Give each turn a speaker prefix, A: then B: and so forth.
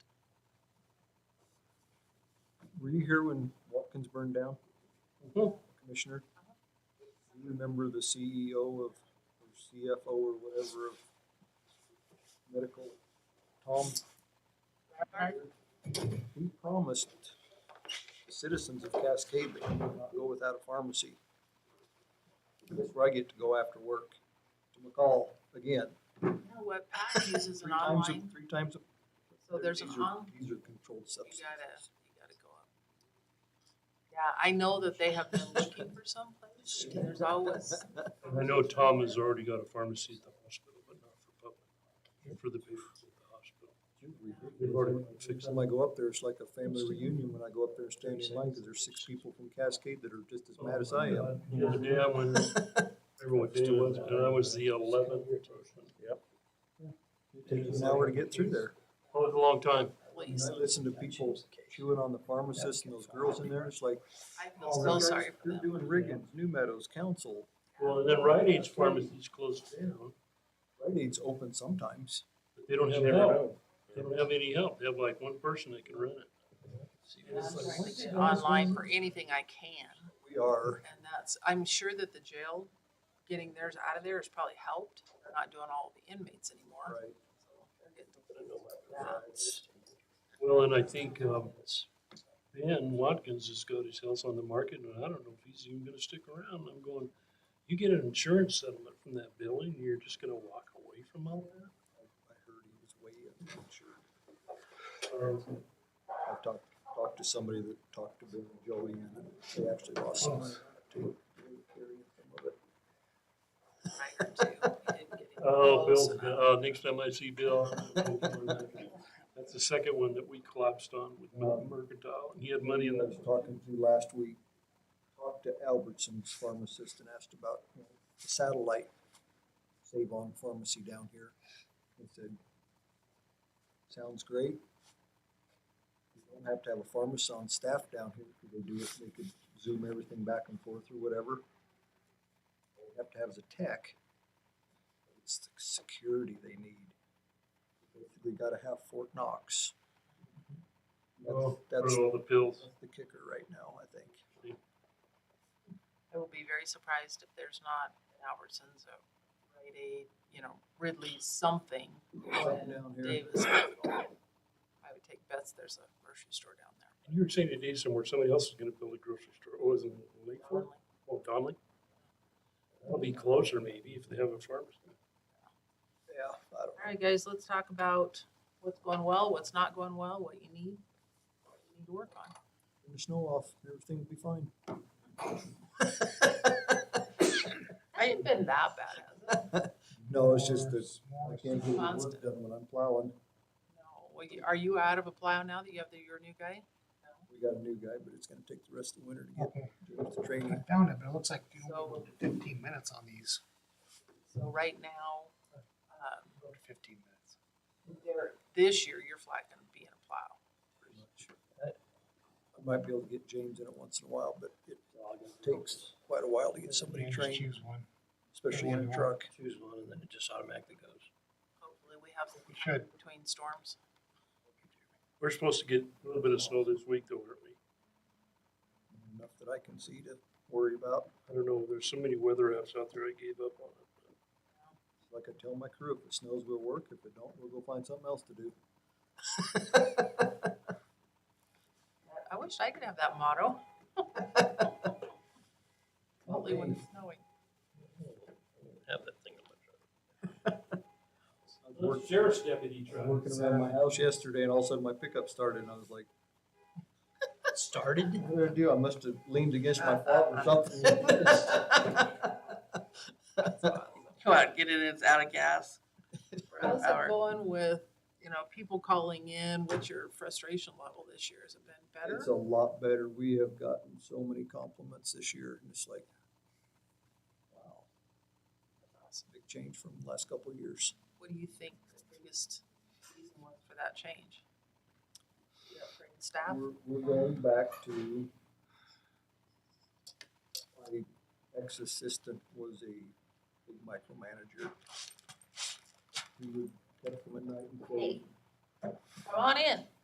A: Were you here when Watkins burned down?
B: Mhm.
A: Commissioner? Do you remember the CEO of, or CFO or whatever of medical, Tom? He promised the citizens of Cascade that he would not go without a pharmacy. That's where I get to go after work, to McCall again.
C: No, what Pat uses an
A: Three times a-
C: online,
A: Three times. a-
C: so there's an
A: These are-
C: on, you
A: These are controlled
C: gotta,
A: substances.
C: you gotta go up. Yeah, I know that they have been looking for someplace, and there's always,
B: I know Tom has already got a pharmacy at the hospital, but not for public, for the patients at the hospital. They've already
A: Next
B: fixed
A: time I go up there, it's like a family reunion when I go up there and stand in line, cause there's six people from Cascade that are just as mad as I am.
B: The other day I went, remember what day it was, and I was the eleventh person.
A: It takes an hour to get through there.
B: That Oh, was a long time.
A: And
C: please,
A: I listen to people chewing on the pharmacist and those girls in there, it's like.
C: I feel
A: "Oh,
C: so
A: you guys,
C: sorry for
A: You're
C: them.
A: doing Riggins, New Meadows, Council,
B: Well, and then Rite Aid's pharmacy's closed down,
A: Rite Aid's open sometimes.
B: but they don't have help. They don't have any help. They have like one person that can run it.
C: And I'm trying to get online for anything I can,
A: We are,
C: and that's, I'm sure that the jail, getting theirs out of there has probably helped. They're not doing all the inmates anymore.
A: right,
C: They're getting
A: that's,
B: Well, and I think, um, Ben Watkins has got his health on the market, and I don't know if he's even gonna stick around. I'm going, you get an insurance settlement from that building, you're just gonna walk away from all that?
A: I heard he was way in, sure.
B: Or-
A: I've talked, talked to somebody that talked to Bill and Joey and they actually lost some too.
C: tired too. We didn't get any
B: Oh,
C: calls,
B: Bill,
C: and I-
B: uh, next time I see Bill. I'll vote for that. That's the second one that we collapsed on with Mountain Mercantile, and he had money in
A: I
B: the
A: was talking to last week, talked to Albertson's pharmacist and asked about you know, the satellite Save On Pharmacy down here. He said, sounds great. You don't have to have a pharmacist on staff down here, because they do it, they could zoom everything back and forth or whatever. All you have to have is a tech. It's the security they need. Basically, gotta have Fort Knox. That's,
B: Oh,
A: that's
B: for all the pills.
A: the kicker right now, I think.
C: I will be very surprised if there's not an Albertsons, a Rite Aid, you know, Ridley, something.
A: Something
C: in
A: down here.
C: Davis. I would take bets there's a grocery store down there.
B: You were saying today somewhere, somebody else is gonna build a grocery store, oh, isn't it Lakeford?
C: Conley.
B: Oh, Donley? That'll be closer maybe if they have a pharmacy.
A: Yeah, I don't
C: All right, guys, let's talk about what's going well, what's not going well, what you need, what you need to work on.
A: Turn the snow off, everything will be fine.
C: Hasn't been that bad, has it?
A: No, Oh, it's just that I can't get the
C: Constant.
A: work done when I'm plowing.
C: No. Well, you- Are you out of a plow now that you have the- your new guy? No.
A: We got a new guy, but it's gonna take the rest of the winter to get, to get the
D: I
A: training.
D: found it, but it looks like you
C: So-
D: only need fifteen minutes on these,
C: So right now, um,
D: Go to fifteen minutes.
C: there, this year, your flag gonna be in a plow.
A: pretty much. I might be able to get James in it once in a while, but it takes quite a while to get somebody
D: Yeah, just
A: trained,
D: Choose one.
A: especially in a truck.
B: Choose one and then it just automatically goes.
C: Hopefully, we have some
D: We
C: time
D: should.
C: between storms.
B: We're supposed to get a little bit of snow this week though, aren't we?
A: Enough that I can see to worry about.
B: I don't know, there's so many weather apps out there, I gave up on it.
A: Like I tell my crew, if it snows, we'll work. If it don't, we'll go find something else to do.
C: I wish I could have that motto. Only when it's snowing.
B: Have that thing on my truck.
A: I've worked-
B: Sheriff's deputy
A: I was Working around my house yesterday and all of a sudden my pickup started and I was like,
E: started.
A: What did I do? I must have leaned against my fault or something.
F: Come on, get it, it's out of gas. For an
C: How's it
F: hour.
C: going with, you know, people calling in? What's your frustration level this year? Has it been better?
A: It's a lot better. We have gotten so many compliments this year and it's like, wow. That's a big change from the last couple of years.
C: What do you think the biggest reason was for that change? Did it upgrade in Staff?
A: We're, we're going back to my ex-assistant was a big micromanager. He would text him at night and say,
C: Come on in.